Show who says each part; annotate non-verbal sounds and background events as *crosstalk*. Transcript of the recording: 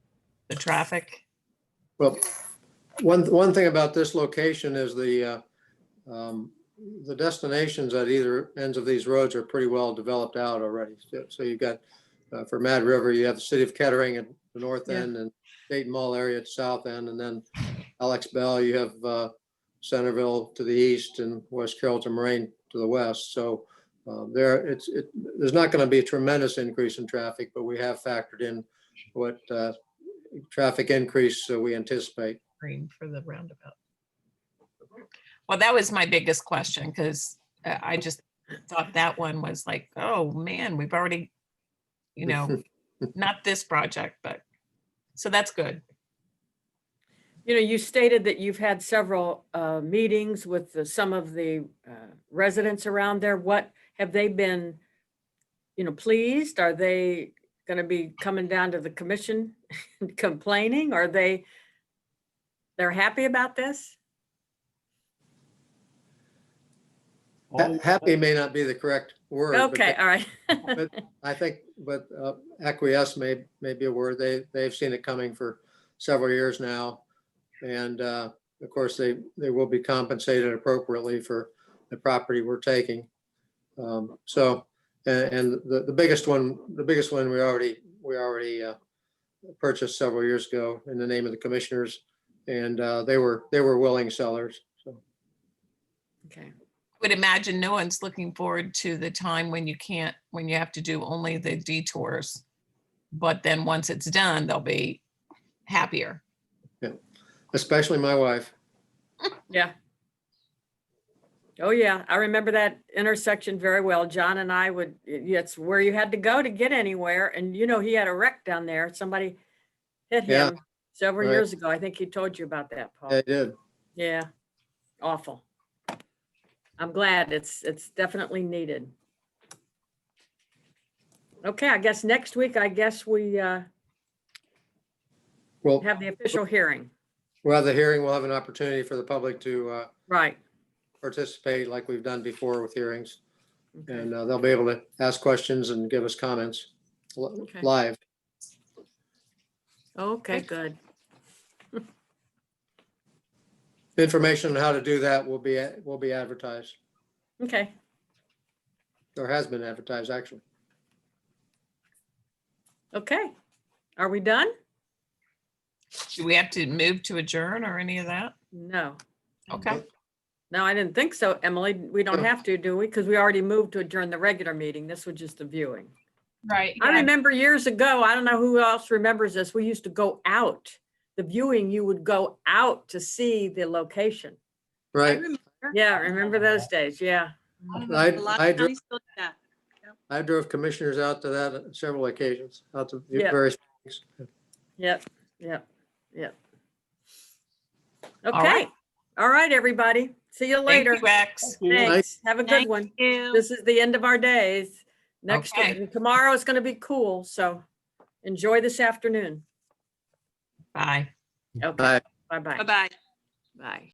Speaker 1: the traffic?
Speaker 2: Well, one, one thing about this location is the, uh, um, the destinations at either ends of these roads are pretty well developed out already. So- So you've got, uh, for Mad River, you have the city of Kettering at the north
Speaker 1: Yeah.
Speaker 2: end and Dayton Mall area at the south end. And then Alex Bell, you have uh, Centerville to the east and West Carrollton Moraine to the west. So uh, there, it's, it, there's not going to be a tremendous increase in traffic, but we have factored in what uh, traffic increase uh, we anticipate.
Speaker 1: green for the roundabout. Well, that was my biggest question because I just thought that one was like, oh, man, we've already, you *laughs* know, not this project, but, so that's good.
Speaker 3: You know, you stated that you've had several uh, meetings with the- some of the uh, residents around there. What, have they been, you know, pleased? Are they going to be coming down to the commission *laughs* and complaining? Are they, they're happy about this?
Speaker 2: Ha- Happy may not be the correct word. but
Speaker 3: Okay, all right. *laughs*
Speaker 2: I think, but uh, acquiesce may, may be a word. They, they've seen it coming for several years now. And uh, of course, they, they will be compensated appropriately for the property we're taking. Um, So, and, and the, the biggest one, the biggest one, we already, we already uh, purchased several years ago in the name of the commissioners. And uh, they were, they were willing sellers, so.
Speaker 3: Okay.
Speaker 1: Would imagine no one's looking forward to the time when you can't, when you have to do only the detours. But then once it's done, they'll be happier.
Speaker 2: especially my wife.
Speaker 3: Yeah. Oh, yeah. I remember that intersection very well. John and I would, it's where you had to go to get anywhere. And you know, he had a wreck down there. Somebody hit
Speaker 2: Yeah,
Speaker 3: him several
Speaker 2: right.
Speaker 3: years ago. I think he told you about that, Paul.
Speaker 2: They did.
Speaker 3: Yeah. Awful. I'm glad it's, it's definitely needed. Okay, I guess next week, I guess we uh
Speaker 2: Well,
Speaker 3: have the official hearing.
Speaker 2: we'll have the hearing, we'll have an opportunity for the public to uh,
Speaker 3: Right.
Speaker 2: participate like we've done before with hearings.
Speaker 3: Okay.
Speaker 2: And uh, they'll be able to ask questions and give us comments li-
Speaker 3: Okay.
Speaker 2: live.
Speaker 3: Okay, good.
Speaker 2: Information on how to do that will be, will be advertised,
Speaker 3: Okay.
Speaker 2: or has been advertised, actually.
Speaker 3: Okay. Are we done?
Speaker 1: Do we have to move to adjourn or any of that?
Speaker 3: No.
Speaker 1: Okay,
Speaker 3: No, I didn't think so, Emily. We don't
Speaker 2: No.
Speaker 3: have to, do we? Because we already moved to adjourn the regular meeting. This was just the viewing.
Speaker 1: right.
Speaker 3: I remember years ago, I don't know who else remembers this, we used to go out. The viewing, you would go out to see the location.
Speaker 2: Right.
Speaker 3: Yeah, remember those days? Yeah.
Speaker 2: I-
Speaker 4: A lot
Speaker 2: I
Speaker 4: of
Speaker 2: dro-
Speaker 4: counties still do that.
Speaker 2: I drove commissioners out to that on several occasions, out to
Speaker 3: Yeah.
Speaker 2: various.
Speaker 3: Yep, yep, yep.
Speaker 1: right.
Speaker 3: Okay. All right, everybody. See you
Speaker 1: Thank you,
Speaker 3: later.
Speaker 1: Rex.
Speaker 3: Thanks. Have a good
Speaker 4: Thank
Speaker 3: one.
Speaker 4: you.
Speaker 3: This is the end of our days. Next,
Speaker 1: Okay.
Speaker 3: and tomorrow is going to be cool, so enjoy this afternoon.
Speaker 1: Bye.
Speaker 3: Okay,
Speaker 2: Bye.
Speaker 3: bye-bye.
Speaker 4: Bye-bye.
Speaker 3: Bye.